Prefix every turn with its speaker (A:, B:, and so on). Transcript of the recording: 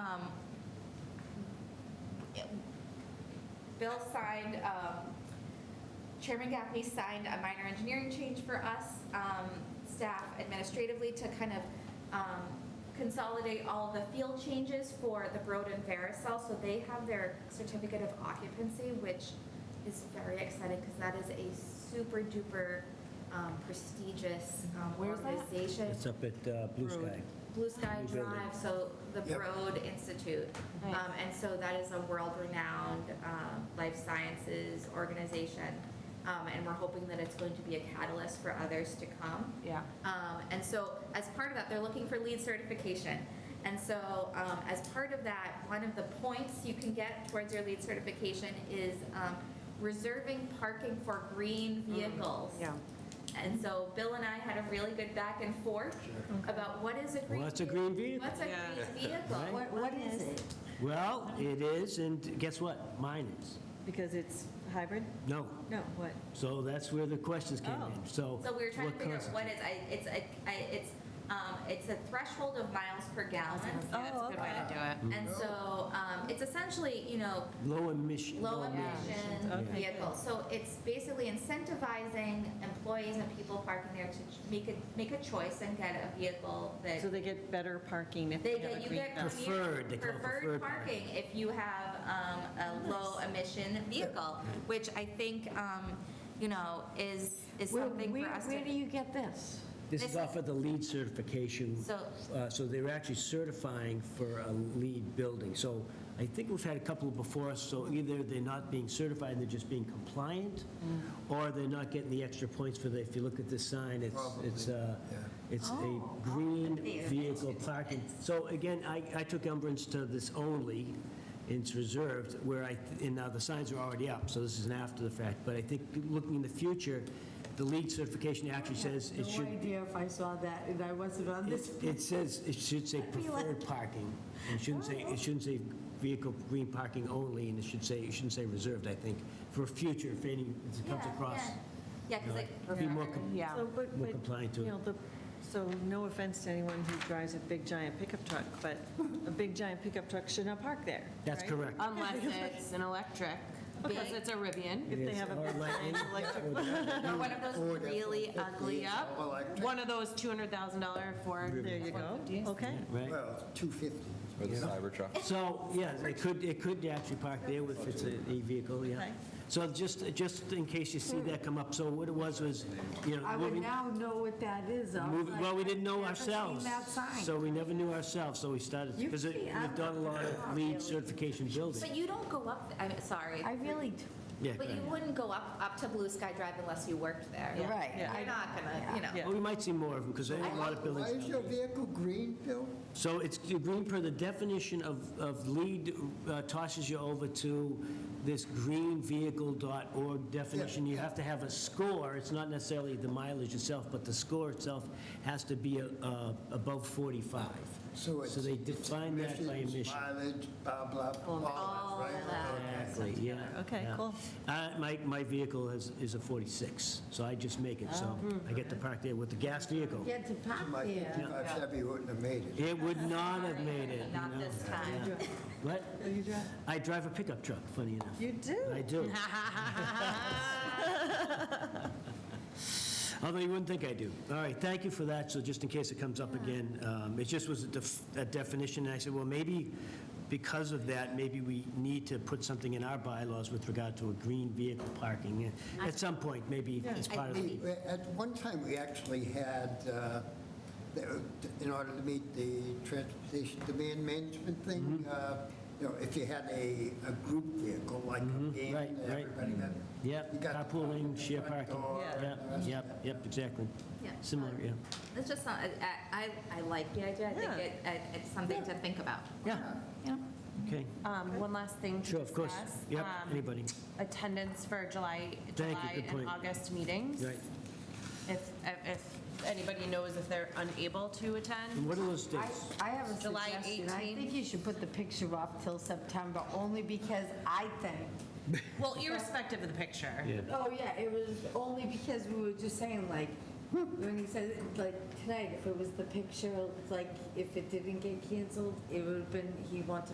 A: Um, Bill signed, um, Chairman Gaffney signed a minor engineering change for us, um, staff administratively to kind of um, consolidate all the field changes for the Broad and Vericel. So they have their certificate of occupancy, which is very exciting because that is a super duper um, prestigious um,
B: Where's that?
A: organization.
C: It's up at uh, Blue
B: Road.
C: Sky.
A: Blue Sky
C: New building.
A: Drive, so the
D: Yep.
A: Broad Institute.
B: Nice.
A: Um, And so that is a world-renowned um, life sciences organization. Um, And we're hoping that it's going to be a catalyst for others to come.
B: Yeah.
A: Um, and so, as part of that, they're looking for lead certification. And so, um, as part of that, one of the points you can get towards your lead certification is um, reserving parking for green vehicles.
B: Yeah.
A: And so, Bill and I had a really good back and forth about what is a green
C: What's a green vehicle?
A: What's a green vehicle?
C: Right.
E: What, what is it?
C: Well, it is, and guess what? Mine is.
B: Because it's hybrid?
C: No.
B: No, what?
C: So that's where the questions came in, so.
A: Oh. So we were trying to
C: what
A: figure out
C: constitutes-
A: what is, I, it's a, I, it's, um, it's a threshold of miles per gallon.
B: that's
E: Oh,
B: a good way to do it.
A: And so, um, it's essentially, you know,
C: Low emission.
A: low
B: Yeah.
A: emission
B: Okay.
A: vehicle. So it's basically incentivizing employees and people parking there to make a, make a choice and get a vehicle that
B: So they get better parking if
A: they
B: they have
A: get,
B: a
A: you
B: green
A: get
B: belt.
C: Prefer- Preferred, they
A: commu-
C: call it
A: preferred
C: preferred
A: parking if you have, um, a low emission vehicle, which I think, um, you know, is, is
E: Where-
A: something for
E: where-
A: us
E: Where do
A: to.
E: you get this?
C: This
A: This
C: is off of the lead certification.
A: So-
C: uh, So they're actually certifying for a lead building. So I think we've had a couple before us, so either they're not being certified, they're just being compliant, or they're not getting the extra points for the, if you look at this sign, it's, it's, uh, it's a green vehicle parking. So again, I, I took umbrance to this only, it's reserved, where I, and now the signs are already up, so this is an after the fact. But I think looking in the future, the lead certification actually says it should
E: No idea if I saw that, and I wasn't on
C: it-
E: this.
C: It says, it should say preferred parking. It shouldn't say, it shouldn't say vehicle, green parking only, and it should say, it shouldn't say reserved, I think, for future, if any, if it comes
A: Yeah,
C: across.
A: yeah. Yeah,
C: you
A: cause
C: know,
A: like.
C: Be more, com-
B: Yeah. So, but-
C: more
B: but,
C: compliant to
B: You
C: it.
B: know, the, so no offense to anyone who drives a big giant pickup truck, but a big giant pickup truck should not park there.
C: That's
B: right?
C: correct.
F: Unless it's an electric, because it's a Rivian.
B: If they
C: Yes,
B: have
C: or
B: a
C: lightning, or the-
A: Or one of those really ugly,
F: Yep, one of those $250,00 Ford.
B: There you go, okay.
C: Right?
D: Well, 250.
G: Or the Cybertruck.
C: So, yeah, it could, it could actually park there if it's a e-vehicle, yeah.
B: Okay.
C: So just, just in case you see that come up, so what it was was, you know.
E: I would
C: moving-
E: now know what that is. I was
C: Move-
E: like,
C: Well, we didn't know
E: I've never seen
C: ourselves.
E: that sign.
C: So we never knew ourselves, so we started,
E: You
C: because we've
E: can't-
C: done a lot of lead certification
A: but
C: building.
A: you don't go up, I'm sorry.
E: I really, d-
C: Yeah,
A: But you
C: correct.
A: wouldn't go up, up to Blue Sky Drive unless you worked there.
B: Yeah.
E: Right.
A: You're not gonna, you know.
B: Yeah.
C: Well, we might see more of them, because there are a lot of
D: Why
C: buildings.
D: is your vehicle green, Bill?
C: So it's green per the definition of, of lead uh, tosses you over to this greenvehicle.org definition. You have to have a score, it's not necessarily the mileage itself, but the score itself has to be uh, above 45.
D: So it's-
C: they define that by
D: Emissions,
C: emission.
D: Mileage, blah, blah, blah, all that, right?
C: Exactly, yeah.
B: Okay,
C: yeah.
B: cool.
C: Uh, My, my vehicle is, is a 46, so I just make it,
B: Oh,
C: so
B: hmm.
C: I get to park there with the gas vehicle.
E: get to park
D: My
E: there.
D: 55 Chevy wouldn't have made it.
C: It would not have made it, you
A: Not
C: know.
A: this time.
C: Yeah. What?
B: You drive-
C: I drive a pickup truck, funny enough.
B: You do?
C: I do. Although you wouldn't think I do. All right, thank you for that, so just in case it comes up again. um, It just was a def- a definition, and I said, well, maybe because of that, maybe we need to put something in our bylaws with regard to a green vehicle parking. At some point, maybe as part of the...
D: We- At one time, we actually had, uh, the- in order to meet the transportation demand management thing,
C: Mm-hmm.
D: uh, you know, if you had a, a group vehicle, like a van,
C: Mm-hmm. right, right. Mm-hmm.
D: everybody got. you
C: Yep,
D: got the
C: carpooling,
D: front
C: share
D: door
C: parking.
D: and
C: Yep,
D: the rest of
C: yep, yep, exactly.
A: Yeah. Um,
C: Similar, yeah.
A: It's just, not- I, I, I like the idea. I think
B: Yeah.
A: it, it- it's something to think about.
C: Yeah,
A: Yeah.
C: okay.
F: Um, One last thing to
C: Sure, of course.
F: discuss,
C: Yep,
F: um,
C: anybody.
F: Attendance for July,
C: Thank you,
F: July
C: good
F: and
C: point.
F: August meetings.
C: Right.
F: If, if anybody knows if they're unable to
C: And
F: attend.
C: what are those
E: I,
C: dates?
E: I have a
F: July
E: suggestion. I
F: 18.
E: think you should put the picture off till September, only because I think,
F: Well, irrespective of the picture.
E: oh, yeah, it was only because we were just saying, like, when he said, like, tonight, if it was the picture, like, if it didn't get canceled, it would have been, he wanted